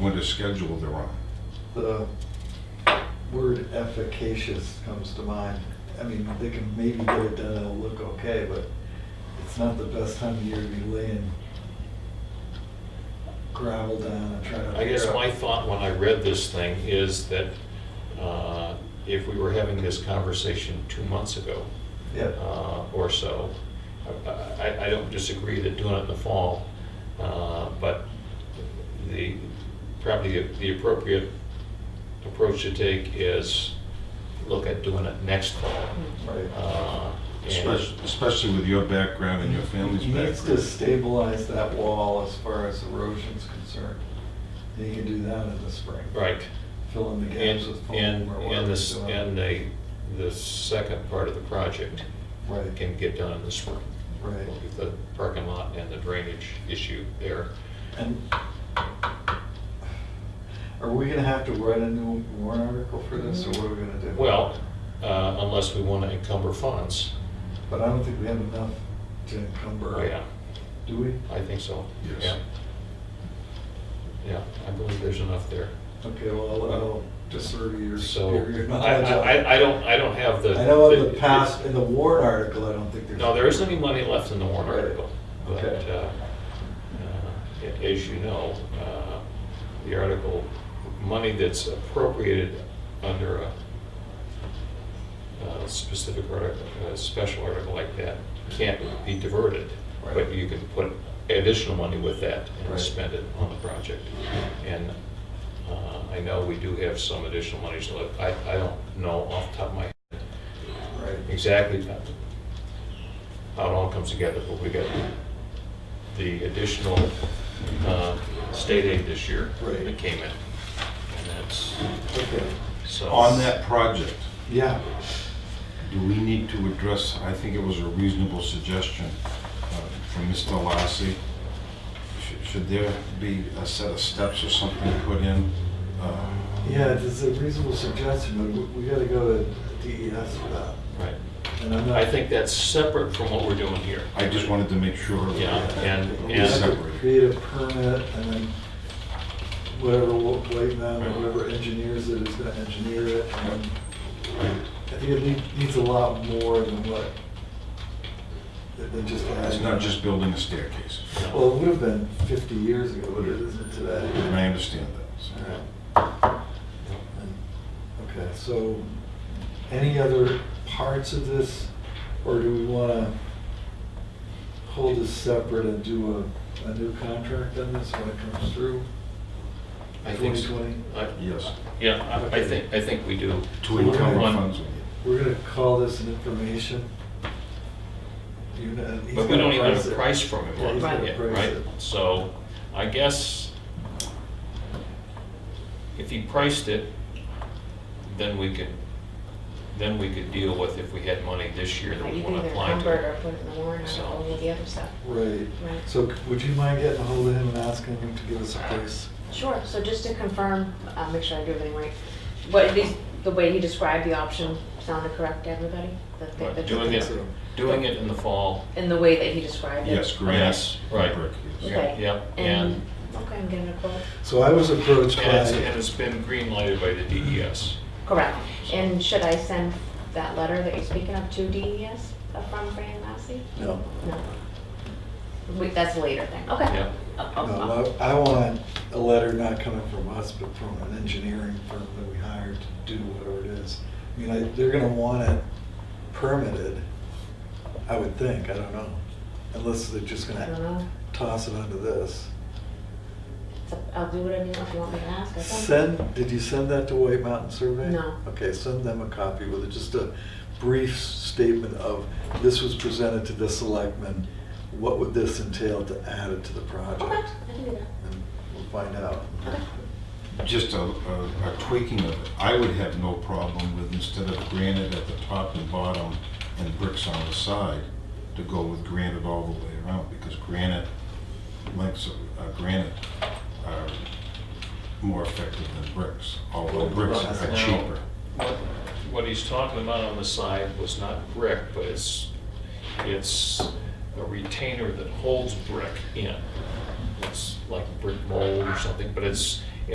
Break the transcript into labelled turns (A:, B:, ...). A: what a schedule they're on.
B: the word efficacious comes to mind. I mean, they can maybe get it done, it'll look okay, but it's not the best time of year to be laying gravel down and trying to.
C: I guess
B: figure out-
C: my thought when I read this thing is that uh, if we were having this conversation two months ago
B: Yeah,
C: uh, or so, I- I, I don't disagree that doing it in the fall, uh, but the, probably the appropriate approach to take is look at doing it next fall.
B: right.
C: Uh, and-
A: Especially, especially with your background and your family's
B: He needs to
A: background.
B: stabilize that wall as far as erosion's concerned. And he can do that in the spring.
C: Right.
B: Fill in the
C: And,
B: gaps with
C: and,
B: foam or
C: and
B: whatever. he's
C: this,
B: doing.
C: and the, the second part of the project
B: Right,
C: can get done in the spring.
B: right.
C: With the parking lot and the drainage issue there.
B: And are we gonna have to write a new warrant article for this, or what are we gonna do?
C: Well, uh, unless we want to encumber funds.
B: But I don't think we have enough to encumber.
C: Oh, yeah,
B: Do we?
C: I think so.
A: Yes.
C: Yeah. Yeah, I believe there's enough there.
B: Okay, well, I'll- I'll defer to your.
C: So
B: your- your
C: I,
B: knowledge of
C: I,
B: it.
C: I- I don't, I don't have the.
B: I know in the past, in the warrant article, I don't think there's.
C: No, there isn't any money left in the warrant
B: Right.
C: article. But
B: Okay.
C: uh, uh, a- as you know, uh, the article, money that's appropriated under a uh, specific article, a special article like that, can't be diverted. But
B: Right.
C: you can put additional money with that
B: Right.
C: and spend it on the project. And uh, I know we do have some additional monies left. I I don't know off the top of my head
B: Right,
C: exactly how it all comes together, but we got the additional uh, state aid this year
B: Right.
C: that came in. And that's,
B: okay,
C: so.
A: On that project,
B: yeah,
A: do we need to address, I think it was a reasonable suggestion uh, from Mr. Lassie. Should- Should there be a set of steps or something put in? uh,
B: yeah, it's a reasonable suggestion, but we- we gotta go to DES for that.
C: Right.
B: And I'm not.
C: I think that's separate from what we're doing here.
A: I just wanted to make sure.
C: Yeah, and-
A: it was
B: We have to
A: separated.
B: create a permit and then whatever, wo- wait man, or whoever engineers it is gonna engineer it. and I think it need- needs a lot more than what, than than just.
A: It's not just building a staircase,
B: Well, it would have been fifty years ago, but it isn't today.
A: and I understand that. so.
B: Alright. And- Okay, so any other parts of this, or do we want to hold this separate and do a, a new contract on this when it comes through?
C: I think so.
B: 2020?
C: I-
A: Yes,
C: Yeah, I- I think, I think we do.
A: to encumber
C: One-
A: funds.
B: We're going to call this an information. unit. He's
C: But we don't
B: gonna
C: even have
B: price
C: a
B: it.
C: price from him
B: Yeah, he's
C: on
B: gonna
C: it yet,
B: price
C: right?
B: it.
C: So I guess if he priced it, then we could, then we could deal with if we had money this year that we
D: You
C: want
D: can
C: to
D: either
C: apply
D: convert or
C: to.
D: put it in the warrant
C: So-
D: article, with the other stuff.
B: Right.
D: Right.
B: So c- would you mind getting a hold of him and asking him to give us a price?
D: Sure, so just to confirm, uh, make sure I do everything right, what, at least the way he described the option sounded correct to everybody? The- the-
C: Right,
D: the-
C: Doing it, doing it in the fall.
D: In the way that he described it?
A: Yes, grass,
C: Yes, right.
A: brick, yes.
D: Okay.
C: Yeah,
D: And, okay, I'm getting a quote.
B: So I was approached
C: And it's,
B: by,
C: and it's been green lighted by the E DES.
D: Correct. And should I send that letter that you're speaking of to DES from Fran Lassie?
B: no,
D: No. Wait, that's a later thing, okay.
C: Yeah.
D: Oh, oh, oh.
B: No, I I want a letter not coming from us, but from an engineering firm that we hired to do whatever it is. I mean, I- they're gonna want it permitted, I would think, I don't know. Unless they're just
D: I don't
B: gonna
D: know.
B: toss it onto this.
D: Uh, It's up- I'll do whatever you want, if you want me to ask, I think.
B: Send, did you send that to White Mountain Survey?
D: No.
B: Okay, send them a copy with just a brief statement of, this was presented to the selectmen, what would this entail to add it to the
D: Okay,
B: project?
D: I can do that.
B: And we'll find out.
D: Okay.
A: Just a, a a tweaking of it. I would have no problem with instead of granite at the top and bottom and bricks on the side, to go with granite all the way around, because granite, lengths of uh, granite are more effective than bricks, although bricks are cheaper.
C: What- What he's talking about on the side was not brick, but it's, it's a retainer that holds brick in. It's like brick mold or something, but it's,